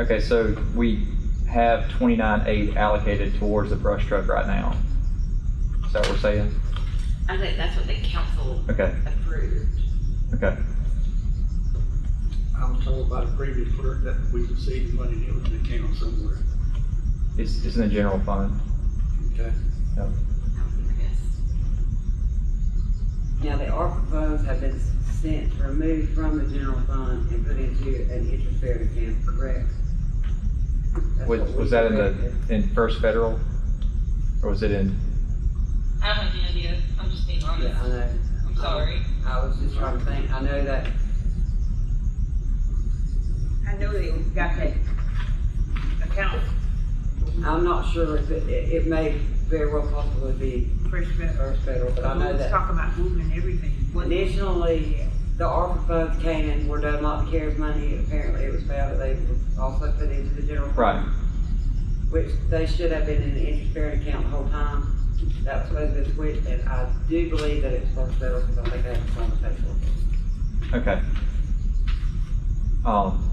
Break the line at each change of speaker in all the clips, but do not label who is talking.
Okay, so we have twenty-nine eight allocated towards the brush truck right now. Is that what we're saying?
I think that's what the council
Okay,
approved.
okay,
I was told by the previous clerk that we received money and it was in the account somewhere,
it's, it's in the general fund.
okay?
I would guess.
Now, the ARPA funds have been sent, removed from the general fund and put into an interest-bearing account, correct? That's
Was,
what we
was that in the,
corrected.
in First Federal? Or was it in,
I don't have any idea. I'm just being honest.
Yeah, I know.
I'm sorry.
I was just trying to think, I know that,
I know they got that account
I'm not sure if it, it it may very well possibly be
fresh met.
First Federal, but I know
Let's
that
talk about moving everything. What-
initially, the ARPA funds came and were done like the CARES money, apparently it was found that they were also put into the general fund.
right,
which they should have been in the interest-bearing account the whole time. That was supposed to be switched, and I do believe that it's supposed to settle, because I think I have a conversation.
okay. Um,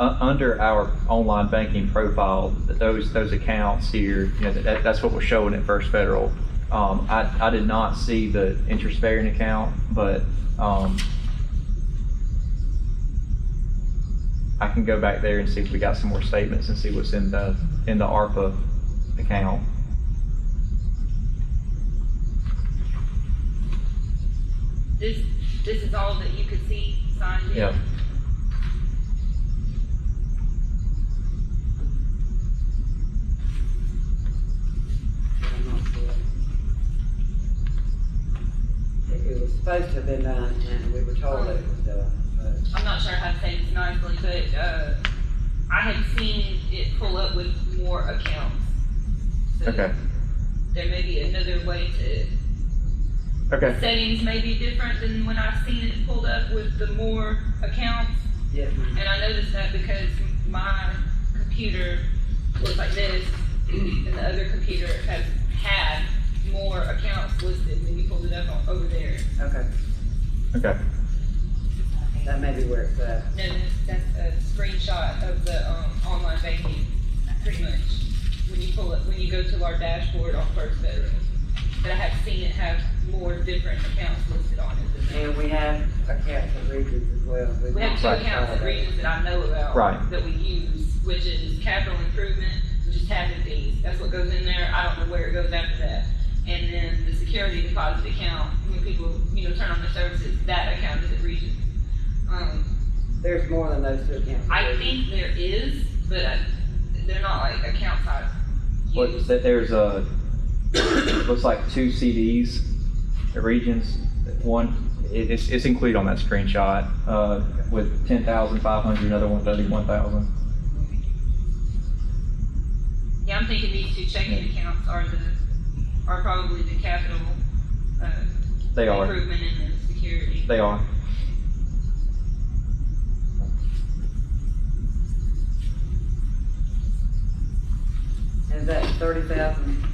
u- under our online banking profile, th- those, those accounts here, you know, that, that's what we're showing at First Federal. Um, I, I did not see the interest-bearing account, but, um, I can go back there and see if we got some more statements and see what's in the, in the ARPA account.
This, this is all that you could see signed in?
Yeah.
I'm not sure. It- It was supposed to have been done, and we were told that it was done,
I'm not sure how to say this nicely, but, uh, I had seen it pull up with more accounts. So
Okay,
There may be another way to,
okay,
settings may be different than when I've seen it pulled up with the more accounts.
but, yes, ma'am.
And I noticed that because my computer looks like this, and the other computer has had more accounts listed when you pulled it up on- over there.
Okay,
okay.
that may be where it's at.
No, that's- that's a screenshot of the, um, online banking, pretty much, when you pull it, when you go to our dashboard on First Federal. But I have seen it have more different accounts listed on it than that.
And we have accounts for regions as well.
We have two
Right.
accounts at Regions that I know about.
Right.
That we use, which is capital improvement, which is tapping fees, that's what goes in there, I don't know where it goes after that. And then the security deposit account, when people, you know, turn on their services, that account is at Regions. Um,
There's more than those two accounts.
I think there is, but I- they're not like account size.
What, that there's a, looks like two CDs, the regions, one, it- it's, it's included on that screenshot, uh, with ten thousand five hundred, another one thirty-one thousand.
Yeah, I'm thinking these two checking accounts are the, are probably the capital, uh,
They are,
improvement and the security.
they are.
And that thirty thousand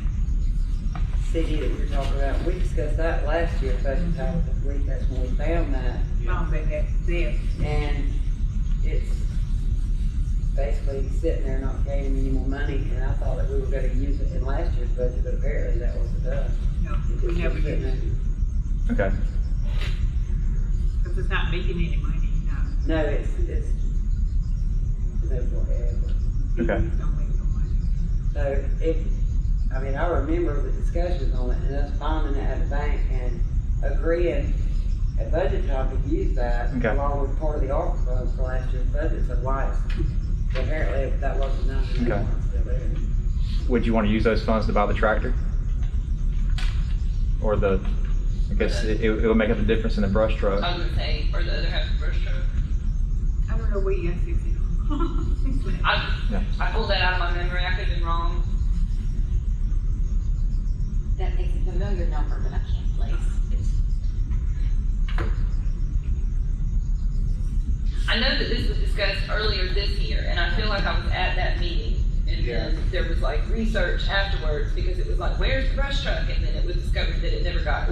CD that you're talking about, we discussed that last year, but I was this week, that's when we found that.
Found that that there.
And it's basically sitting there not gaining any more money, and I thought that we were gonna use it in last year's budget, but apparently that wasn't done.
No, we never did that.
Okay,
Cause it's not making any money, no.
No, it's, it's, no, forever.
Okay.
It Don't make no money.
So if, I mean, I remember the discussions on it and us finding it at the bank and agreeing at budget time to use that
Okay.
along with part of the ARPA funds for last year's budget, so why it's, apparently that wasn't done. and that
Okay.
one's still there.
would you wanna use those funds to buy the tractor? Or the, I guess it, it would make up the difference in the brush truck.
I was gonna say, or the other half of brush truck.
I don't know where you got sixty from.
Yeah.
I, I pulled that out of my memory, I could've been wrong.
That is a familiar number, but I can't place.
I know that this was discussed earlier this year, and I feel like I was at that meeting. And then there was like research afterwards, because it was like, where's the brush truck? And then it was discovered that it never got